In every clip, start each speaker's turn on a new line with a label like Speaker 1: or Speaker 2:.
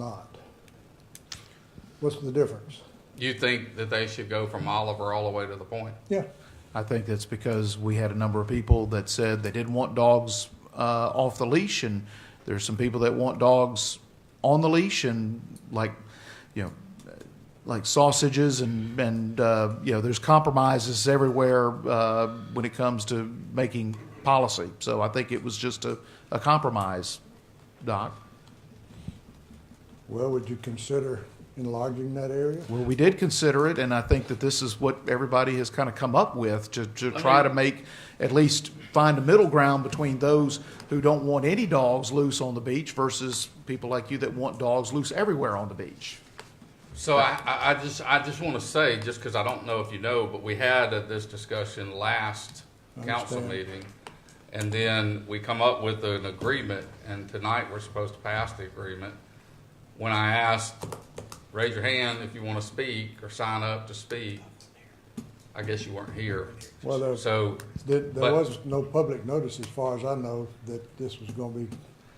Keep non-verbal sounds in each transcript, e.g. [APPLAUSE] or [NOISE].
Speaker 1: not? What's the difference?
Speaker 2: You think that they should go from Oliver all the way to the point?
Speaker 1: Yeah,
Speaker 3: I think that's because we had a number of people that said they didn't want dogs uh, off the leash, and there's some people that want dogs on the leash, and like, you know, like sausages, and and uh, you know, there's compromises everywhere uh, when it comes to making policy. So I think it was just a, a compromise, Doc.
Speaker 1: well, would you consider enlarging that area?
Speaker 3: Well, we did consider it, and I think that this is what everybody has kind of come up with to, to try to make, at least find a middle ground between those who don't want any dogs loose on the beach versus people like you that want dogs loose everywhere on the beach.
Speaker 2: So I, I, I just, I just want to say, just because I don't know if you know, but we had uh, this discussion last council
Speaker 1: Understand.
Speaker 2: meeting. And then we come up with an agreement and tonight we're supposed to pass the agreement. When I asked, raise your hand if you want to speak or sign up to speak, I guess you weren't here.
Speaker 1: Well, there's,
Speaker 2: So,
Speaker 1: there there
Speaker 2: but-
Speaker 1: was no public notice, as far as I know, that this was gonna be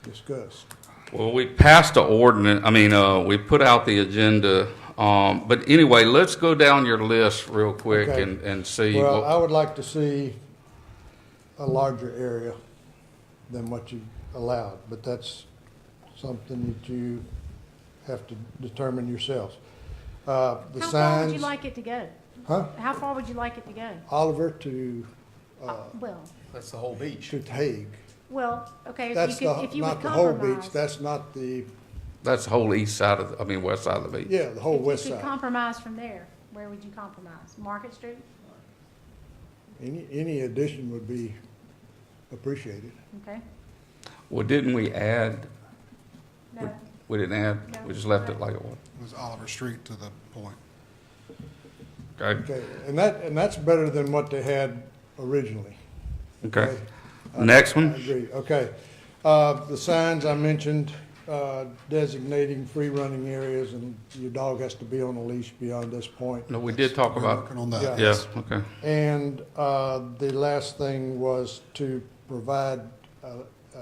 Speaker 1: discussed.
Speaker 2: well, we passed the ordinance, I mean, uh, we put out the agenda. Um, but anyway, let's go down your list real quick
Speaker 1: Okay.
Speaker 2: and, and see.
Speaker 1: Well,
Speaker 2: what-
Speaker 1: I would like to see a larger area than what you allowed, but that's something that you have to determine yourselves. Uh, the
Speaker 4: How
Speaker 1: signs.
Speaker 4: far would you like it to go?
Speaker 1: Huh?
Speaker 4: How far would you like it to go?
Speaker 1: Oliver to,
Speaker 4: Uh, Well,
Speaker 3: That's the whole beach.
Speaker 1: to Hague.
Speaker 4: well, okay,
Speaker 1: That's
Speaker 4: if you could,
Speaker 1: the,
Speaker 4: if you would
Speaker 1: not the whole beach,
Speaker 4: compromise.
Speaker 1: that's not the,
Speaker 2: That's the whole east side of, the- I mean, west side of the beach.
Speaker 1: yeah, the whole
Speaker 4: If you
Speaker 1: west
Speaker 4: could
Speaker 1: side.
Speaker 4: Compromise from there, where would you compromise? Market Street?
Speaker 1: Any, any addition would be appreciated.
Speaker 4: Okay.
Speaker 2: Well, didn't we add, we-
Speaker 4: No,
Speaker 2: we didn't add, we just left it like it was.
Speaker 5: It was Oliver Street to the point.
Speaker 2: Okay,
Speaker 1: Okay, and that, and that's better than what they had originally.
Speaker 2: okay. Next
Speaker 1: I
Speaker 2: one?
Speaker 1: agree, okay. Uh, the signs I mentioned, uh, designating free running areas and your dog has to be on a leash beyond this point.
Speaker 2: No, we did talk
Speaker 5: We're
Speaker 2: about,
Speaker 5: working on that.
Speaker 1: Yeah.
Speaker 2: yeah, okay.
Speaker 1: And uh, the last thing was to provide a, a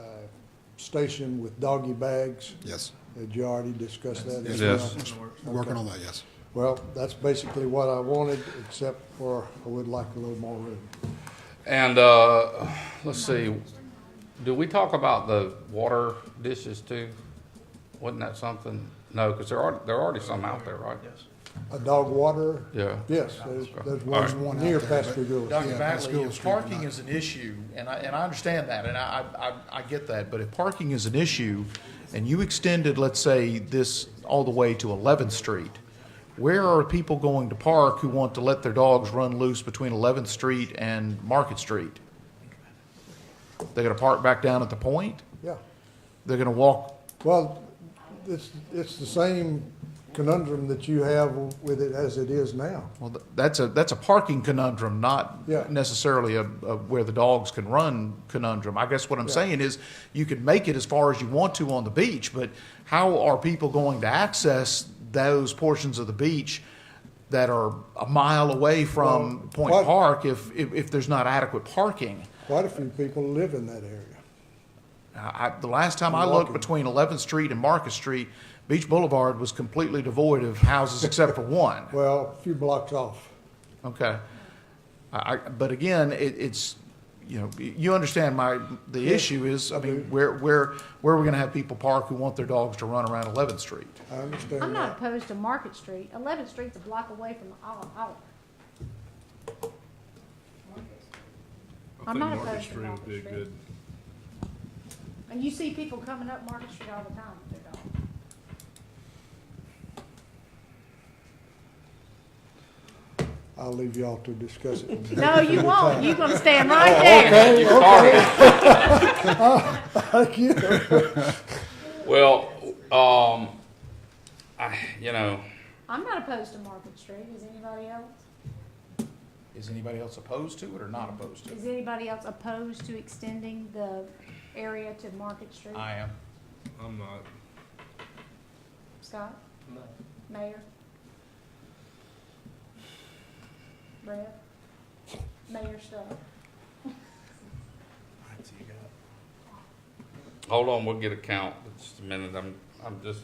Speaker 1: station with doggy bags.
Speaker 5: Yes,
Speaker 1: Did you already discuss that? as
Speaker 2: Yes.
Speaker 1: well?
Speaker 5: we're working on that, yes.
Speaker 1: Well, that's basically what I wanted, except for I would like a little more room.
Speaker 2: And, uh, let's see, do we talk about the water dishes too? Wasn't that something? No, because there are, there are already some out there, right?
Speaker 1: A dog water,
Speaker 2: Yeah.
Speaker 1: yes, there's, there's
Speaker 2: All
Speaker 1: one near
Speaker 5: right. One out there, but-
Speaker 1: Pastor Goulas.
Speaker 3: Dr.
Speaker 5: Yeah, that's
Speaker 3: Bagley,
Speaker 5: Google
Speaker 3: if
Speaker 5: Street or
Speaker 3: parking
Speaker 5: not.
Speaker 3: is an issue, and I, and I understand that, and I, I, I- I get that, but if parking is an issue, and you extended, let's say, this all the way to 11th Street, where are people going to park who want to let their dogs run loose between 11th Street and Market Street? They're gonna park back down at the point?
Speaker 1: Yeah,
Speaker 3: They're gonna walk,
Speaker 1: well, it's, it's the same conundrum that you have with it as it is now.
Speaker 3: well, th- that's a, that's a parking conundrum, not
Speaker 1: Yeah.
Speaker 3: necessarily a, a where the dogs can run conundrum. I guess what I'm
Speaker 1: Yeah.
Speaker 3: saying is you can make it as far as you want to on the beach, but how are people going to access those portions of the beach that are a mile away from
Speaker 1: Well,
Speaker 3: Point
Speaker 1: what-
Speaker 3: Park if, if, if there's not adequate parking?
Speaker 1: Quite a few people live in that area.
Speaker 3: I, I- the last time I
Speaker 1: Walking.
Speaker 3: looked between 11th Street and Market Street, Beach Boulevard was completely devoid of houses except for one.
Speaker 1: Well, a few blocks off.
Speaker 3: Okay. I, I, but again, it, it's, you know, you understand my, the issue is, I mean, where, where, where are we gonna have people park who want their dogs to run around Eleventh Street?
Speaker 1: I understand
Speaker 4: I'm not
Speaker 1: that.
Speaker 4: opposed to Market Street. Eleventh Street's a block away from Olive, Olive. I'm not opposed to Market Street. And you see people coming up Market Street all the time with
Speaker 1: [LAUGHS]
Speaker 4: their dogs.
Speaker 1: I'll leave y'all to discuss it.
Speaker 4: [LAUGHS] No, you won't. You're gonna
Speaker 1: [LAUGHS]
Speaker 4: stand
Speaker 1: Oh,
Speaker 4: right there.
Speaker 2: You started.
Speaker 1: Thank you.
Speaker 2: Well, um, I, you know,
Speaker 4: I'm not opposed to Market Street. Is anybody else?
Speaker 3: Is anybody else opposed to it or not opposed
Speaker 4: Is anybody else opposed to extending the area to Market Street?
Speaker 3: am.
Speaker 6: I'm not.
Speaker 4: Scott? No. Mayor? Brad? Mayor Stubbs?
Speaker 2: hold on, we'll get a count. Just a minute, I'm, I'm just